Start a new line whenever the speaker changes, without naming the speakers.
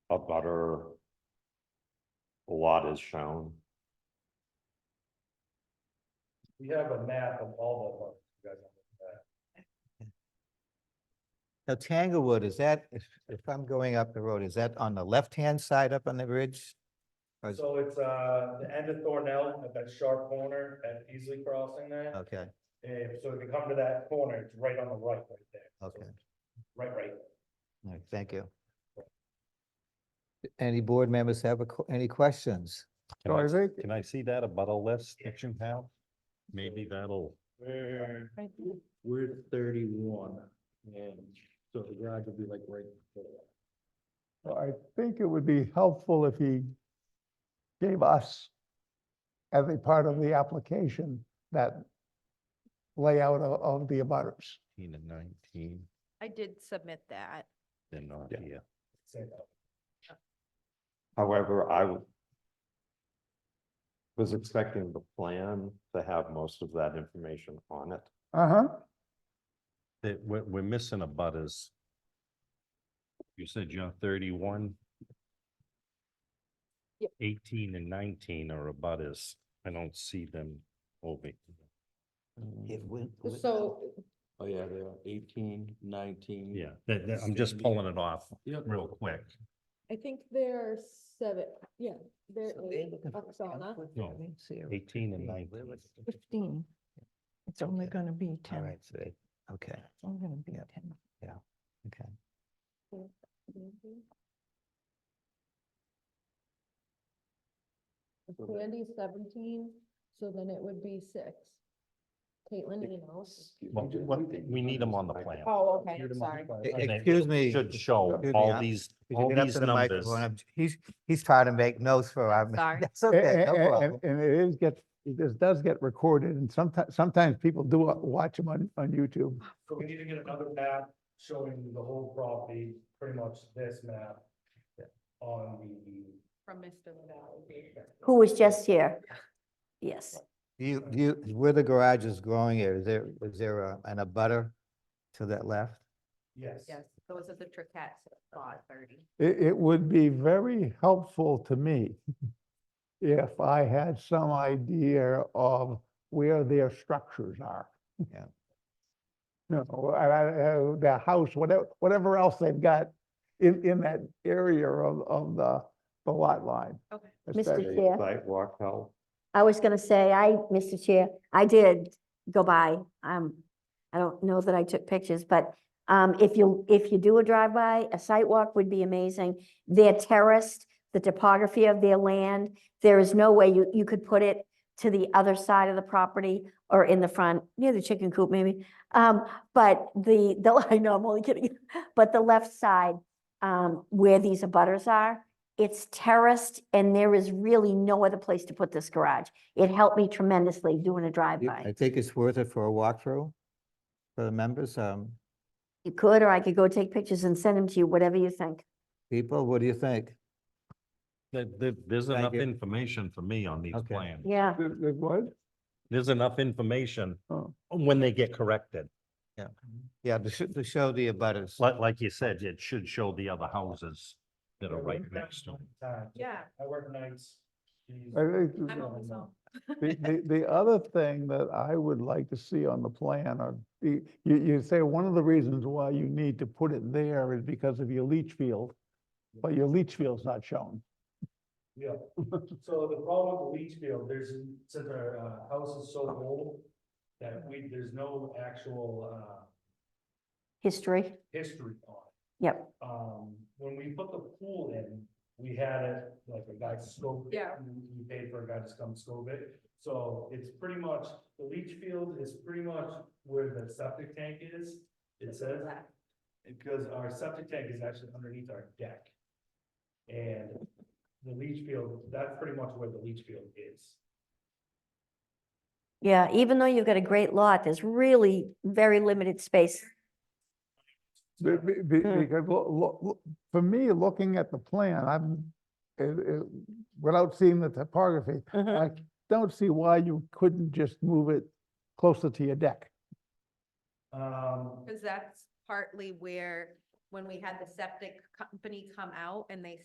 a butter lot is shown.
We have a map of all the ones.
Now Tanglewood, is that, if, if I'm going up the road, is that on the left-hand side up on the ridge? Or is-
So it's, uh, the end of Thornell at that sharp corner at Easily Crossing there.
Okay,
Eh, so if you come to that corner, it's right on the right, right there. So
okay,
it's Right, right.
all right, thank you. Any board members have a que- any questions?
Can I,
Isaac?
can I see that a butter list that you have? Maybe that'll,
Where,
Right there.
we're thirty-one and so the garage would be like right before.
Well, I think it would be helpful if he gave us as a part of the application, that layout of, of the abutters.
eighteen and nineteen,
I did submit that.
they're not
Yeah.
here.
Say that.
However, I would was expecting the plan to have most of that information on it.
Uh-huh.
That we're, we're missing a butters. You said you're thirty-one?
Yep.
Eighteen and nineteen are a butters. I don't see them over.
So
Oh, yeah, they are eighteen, nineteen.
Yeah, that, that- I'm just pulling it off
Yep.
real quick.
I think there are seven, yeah, there
So they're
is
looking for
Oksana.
Tanglewood?
No.
I didn't see her.
Eighteen and
Where
nineteen.
was it?
fifteen. It's only
Okay.
gonna be
All
ten.
right, so they- okay,
It's only gonna be
Yeah.
ten.
okay.
Mm-hmm. If Candy's seventeen, so then it would be six. Caitlin, you know.
Well, what- we need them on the plan.
Oh, okay,
You're the
sorry.
multiplier.
E-
And they
Excuse me.
Should show
Excuse me,
all
I-
these,
could you
all
get up
these
to the
numbers.
microphone? I'm- He's, he's trying to make notes for our.
Sorry.
That's
A-
okay, no
a-
problem.
And, and it is get, this does get recorded and sometimes, sometimes people do wa- watch them on, on YouTube.
So we need to get another map showing the whole property, pretty much this map on the
From Mr. Lavalley.
who was just here. Yes,
Do You, do you, where the garage is growing here, is there, is there a- an abutter to that left?
Yes.
Yes, those are the Triquettes at five thirty.
It, it would be very helpful to me if I had some idea of where their structures are. uh,
Yeah.
No, I, I, I- their house, whatever, whatever else they've got in, in that area of, of the, the lot line.
Okay.
especially.
Mr. Chair,
Sidewalk help.
I was gonna say, I, Mr. Chair, I did go by. Um, I don't know that I took pictures, but um, if you, if you do a drive-by, a site walk would be amazing. They're terraced, the topography of their land, there is no way you, you could put it to the other side of the property or in the front, near the chicken coop maybe. Um, but the, the, I know, I'm only kidding, but the left side, um, where these abutters are, it's terraced and there is really no other place to put this garage. It helped me tremendously doing a
I
drive-by.
think it's worth it for a walkthrough for the members. Um,
You could, or I could go take pictures and send them to you, whatever you think.
people, what do you think?
There, there- there's enough
you.
information for me on these
Okay.
plans.
Yeah,
The, the what?
There's enough information
Oh.
when they get corrected.
Yeah, to show, to show the abutters.
Like, like you said, it should show the other houses that
I
are right
work
next to
nights
them.
all the time.
Yeah.
I work nights. Jeez.
I think-
I'm always home.
The, the, the other thing that I would like to see on the plan are, the- you, you say one of the reasons why you need to put it there is because of your leach field, but your leach field's not shown.
Yeah, so the problem with the leach field, there's, since our uh, house is so old, that we, there's no actual uh,
history.
history on it.
Yep.
Um, when we put the pool in, we had it, like a guy to scope it.
Yeah.
We we paid for a guy to come scope it, so it's pretty much, the leach field is pretty much where the septic tank is, it says. Because our septic tank is actually underneath our deck. And the leach field, that's pretty much where the leach field is.
Yeah, even though you've got a great lot, there's really very limited space.
Be- be- be-
Hmm.
Because, lo- lo- lo- for me, looking at the plan, I'm, it- it- without seeing the topography,
Mhm.
I don't see why you couldn't just move it closer to your deck.
Um,
Because that's partly where, when we had the septic company come out and they